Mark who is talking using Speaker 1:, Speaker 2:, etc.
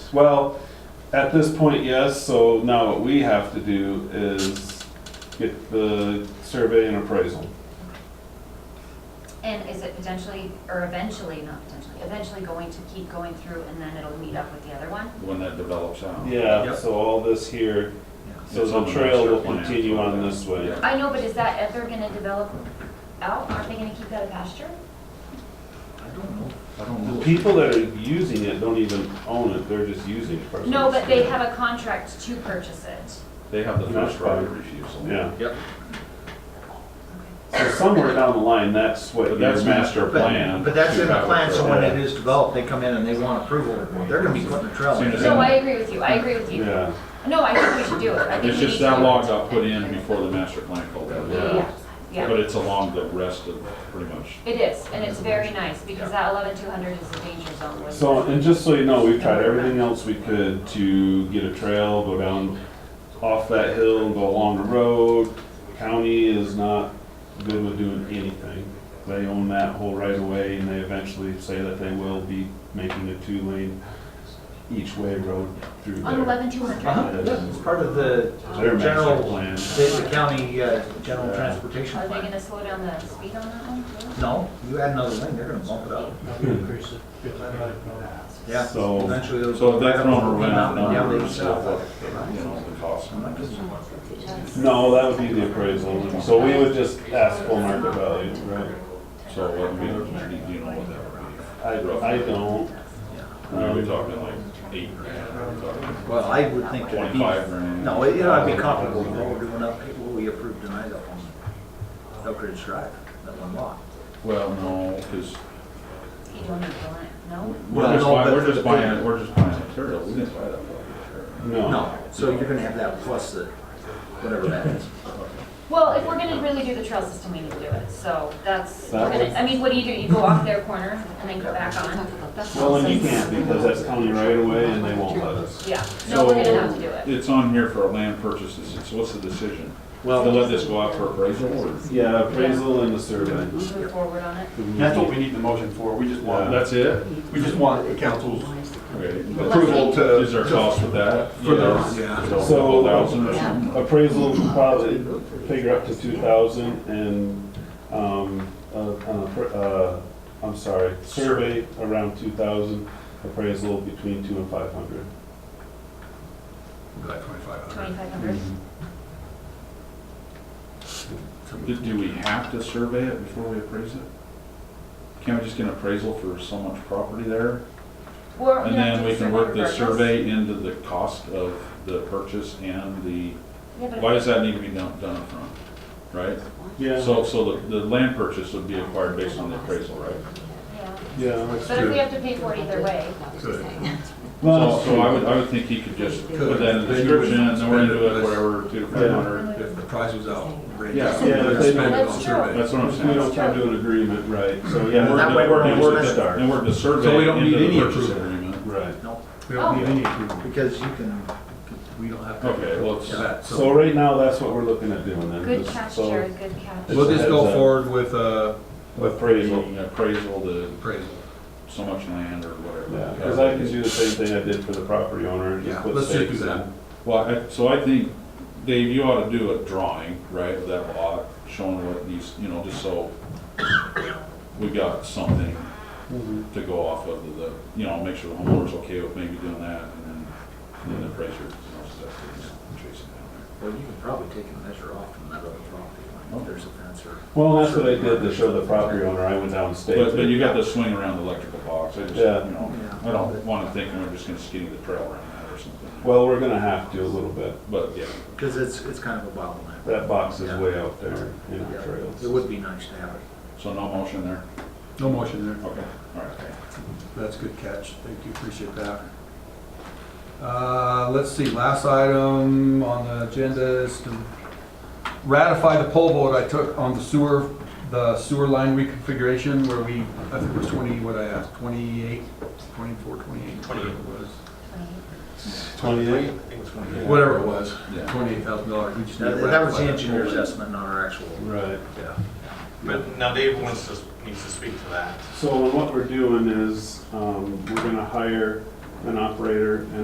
Speaker 1: Well, at this point, yes, so now what we have to do is get the survey and appraisal.
Speaker 2: And is it potentially, or eventually, not potentially, eventually going to keep going through and then it'll meet up with the other one?
Speaker 3: when that develops out.
Speaker 1: Yeah,
Speaker 4: Yep.
Speaker 1: so all this here, so
Speaker 3: It's on
Speaker 1: the
Speaker 3: the
Speaker 1: trail will
Speaker 3: master plan.
Speaker 1: continue on this way.
Speaker 3: Yeah.
Speaker 2: I know, but is that, if they're gonna develop out, aren't they gonna keep that a pasture?
Speaker 4: I don't know.
Speaker 3: I don't
Speaker 1: The
Speaker 3: know.
Speaker 1: people that are using it don't even own it, they're just using it. personally.
Speaker 2: No, but they have a contract to purchase it.
Speaker 3: They have the first
Speaker 1: Yeah.
Speaker 3: right of refusal.
Speaker 1: Yeah,
Speaker 4: Yep.
Speaker 1: so somewhere down the line, that's what
Speaker 3: But
Speaker 1: your
Speaker 3: that's
Speaker 1: master
Speaker 3: master
Speaker 1: plan.
Speaker 3: plan.
Speaker 4: But, but that's in the plan, so when
Speaker 1: Yeah.
Speaker 4: it is developed, they come in and they want approval, they're gonna be putting a trail
Speaker 3: Soon
Speaker 4: in.
Speaker 3: as-
Speaker 2: No, I agree with you, I agree with you.
Speaker 1: Yeah,
Speaker 2: No, I think we should do it. I think
Speaker 3: It's
Speaker 2: we
Speaker 3: just
Speaker 2: need to
Speaker 3: that
Speaker 2: do it.
Speaker 3: law got put in before the master plan called out.
Speaker 2: Yeah, yeah,
Speaker 3: But it's along the rest of, pretty much.
Speaker 2: it is, and it's very nice, because that eleven two hundred is a danger zone. with-
Speaker 1: so,
Speaker 3: uh,
Speaker 1: and just so you know, we've tried everything else we could to get a trail, go down off that hill, go along the road. County is not good with doing anything. They own that whole right of way and they eventually say that they will be making a two lane each way road through there.
Speaker 2: On eleven two hundred,
Speaker 4: Uh-huh, yeah, It's part of the
Speaker 1: Their master
Speaker 4: general,
Speaker 1: plan.
Speaker 4: the the county, uh, general transportation
Speaker 2: are they
Speaker 4: plan.
Speaker 2: gonna slow down the speed on that one? too?
Speaker 4: No, you add another lane, they're gonna bump it up.
Speaker 5: Increase it. Get that out of control.
Speaker 4: Yeah,
Speaker 1: So-
Speaker 4: eventually those.
Speaker 3: So if that number went out,
Speaker 4: Yeah,
Speaker 3: number
Speaker 4: they
Speaker 3: is
Speaker 4: sell
Speaker 3: still,
Speaker 4: that.
Speaker 3: you know, the cost.
Speaker 4: I'm not gonna-
Speaker 1: No, that would be the appraisal, so we would just ask full market value, right?
Speaker 3: So what we, you know, what that
Speaker 1: I, I don't,
Speaker 3: would be. We're
Speaker 1: Um,
Speaker 3: talking like eight grand, we're talking
Speaker 4: Well, I would think that it'd be,
Speaker 3: twenty-five grand.
Speaker 4: no, it- it'd be comparable to what we're doing up, what we approved tonight up on Elk Ridge Drive, that one lot.
Speaker 3: Well, no, because
Speaker 2: You don't need to, go in, no?
Speaker 3: we're just
Speaker 4: no,
Speaker 3: buying,
Speaker 4: but-
Speaker 3: we're just buying, we're just buying material. We didn't buy that property.
Speaker 1: no.
Speaker 4: No, so you're gonna have that plus the, whatever that is.
Speaker 2: Well, if we're gonna really do the trail system, we need to do it, so that's,
Speaker 1: That
Speaker 2: we're gonna-
Speaker 1: was-
Speaker 2: I mean, what do you do, you go off their corner and then go back on?
Speaker 1: Well, and you can't because that's county right away and they won't let us.
Speaker 2: Yeah, no, we're gonna have to do
Speaker 3: So,
Speaker 2: it.
Speaker 3: It's on here for a land purchase. It's, what's the decision?
Speaker 4: Well-
Speaker 3: To let this go out for appraisal or?
Speaker 1: Yeah, appraisal and the survey.
Speaker 2: Move forward on it.
Speaker 6: That's what we need the motion for, we just want,
Speaker 3: That's it?
Speaker 6: we just want the council's
Speaker 3: Okay.
Speaker 6: approval to.
Speaker 3: Is there a cost with that?
Speaker 6: For the-
Speaker 4: Yeah.
Speaker 3: So, thousand or something?
Speaker 1: Appraisal probably figure up to two thousand and, um, uh, an appra- uh, I'm sorry, survey around two thousand, appraisal between two and five hundred.
Speaker 6: Like 2,500.
Speaker 2: Twenty-five hundred?
Speaker 3: Mm-hmm. Do- Do we have to survey it before we appraise it? Can't we just get an appraisal for so much property there?
Speaker 2: Or
Speaker 3: And
Speaker 2: we have
Speaker 3: then
Speaker 2: to
Speaker 3: we can work the
Speaker 2: purchase.
Speaker 3: survey into the cost of the purchase and the,
Speaker 2: Yeah, but
Speaker 3: why does that need to be done, done upfront? Right?
Speaker 1: Yeah,
Speaker 3: So, so the, the land purchase would be acquired based on the appraisal, right?
Speaker 2: yeah.
Speaker 1: yeah. that's
Speaker 2: But if
Speaker 1: true.
Speaker 2: we have to pay for it either way,
Speaker 6: Good.
Speaker 1: Well,
Speaker 3: So, so I would, I would think he could just put that in the description and then we're into it, whatever, two to five hundred.
Speaker 6: If the price was outrageous.
Speaker 3: Yeah.
Speaker 1: Yeah,
Speaker 6: they're
Speaker 1: if they
Speaker 6: spending
Speaker 2: don't-
Speaker 6: on survey.
Speaker 3: That's what I'm
Speaker 1: We don't
Speaker 3: saying.
Speaker 1: come to an agreement, right, so yeah.
Speaker 4: That
Speaker 3: And
Speaker 4: way we're-
Speaker 3: and
Speaker 4: we're-
Speaker 3: the- And work the
Speaker 6: So we
Speaker 3: survey
Speaker 6: don't
Speaker 3: into
Speaker 6: need
Speaker 3: the
Speaker 6: any
Speaker 3: purchase
Speaker 6: approval.
Speaker 3: agreement.
Speaker 1: Right.
Speaker 4: No,
Speaker 6: We
Speaker 2: Oh,
Speaker 6: don't need any approval
Speaker 4: because you can, we don't have to.
Speaker 3: Okay, well,
Speaker 6: for
Speaker 3: it's-
Speaker 6: that,
Speaker 1: So
Speaker 6: so.
Speaker 1: right now, that's what we're looking at doing then.
Speaker 2: good
Speaker 1: just-
Speaker 2: catch,
Speaker 1: so
Speaker 2: Jared, good catch.
Speaker 6: We'll just
Speaker 1: Heads
Speaker 6: go
Speaker 1: up.
Speaker 6: forward with, uh, with
Speaker 1: Appraisal,
Speaker 3: the appraisal, the
Speaker 6: appraisal.
Speaker 3: so much land or whatever.
Speaker 1: yeah, because I can do the same thing I did for the property owner and just
Speaker 6: Yeah,
Speaker 1: put
Speaker 6: let's just do
Speaker 1: stakes in.
Speaker 6: that.
Speaker 3: Well, I, so I think, Dave, you ought to do a drawing, right, of that lot, showing what these, you know, just so we got something to go off of the, you know, make sure the homeowner's okay with maybe doing that, and then, and then the appraiser, you know, stuff, chasing down
Speaker 4: Well, you can probably take a measure off from that other property line, if there's a fence or.
Speaker 1: Well, that's what I did to show the property owner, I went down
Speaker 3: there. But, but
Speaker 1: state.
Speaker 3: you got the swing around the electrical box, I just, you
Speaker 1: Yeah.
Speaker 3: know, I don't wanna think we're just gonna skinny the trail around that or something,
Speaker 1: Well, we're gonna have to a little bit,
Speaker 3: but, yeah.
Speaker 4: Because it's, it's kind of a bottleneck.
Speaker 1: that box is
Speaker 4: Yeah.
Speaker 1: way out there in
Speaker 4: Yeah.
Speaker 1: our trails.
Speaker 4: It would be nice to have it.
Speaker 3: So no motion there?
Speaker 6: No motion there.
Speaker 3: Okay, all right.
Speaker 6: That's a good catch, thank you, appreciate that. Uh, let's see, last item on the agenda is to ratify the poll vote I took on the sewer, the sewer line reconfiguration where we, I think it was twenty, what I asked, 28, 24, 28, whatever it was.
Speaker 1: Twenty-eight?
Speaker 6: Whatever it was,
Speaker 3: Yeah.
Speaker 6: twenty-eight thousand dollars, we just need to
Speaker 4: Now, That was
Speaker 6: ratify
Speaker 4: the
Speaker 6: that
Speaker 4: engineer's
Speaker 6: poll.
Speaker 4: estimate, not our actual.
Speaker 1: Right.
Speaker 4: Yeah.
Speaker 7: But now Dave wants to, needs to speak to that.
Speaker 1: So what we're doing is, um, we're gonna hire an operator and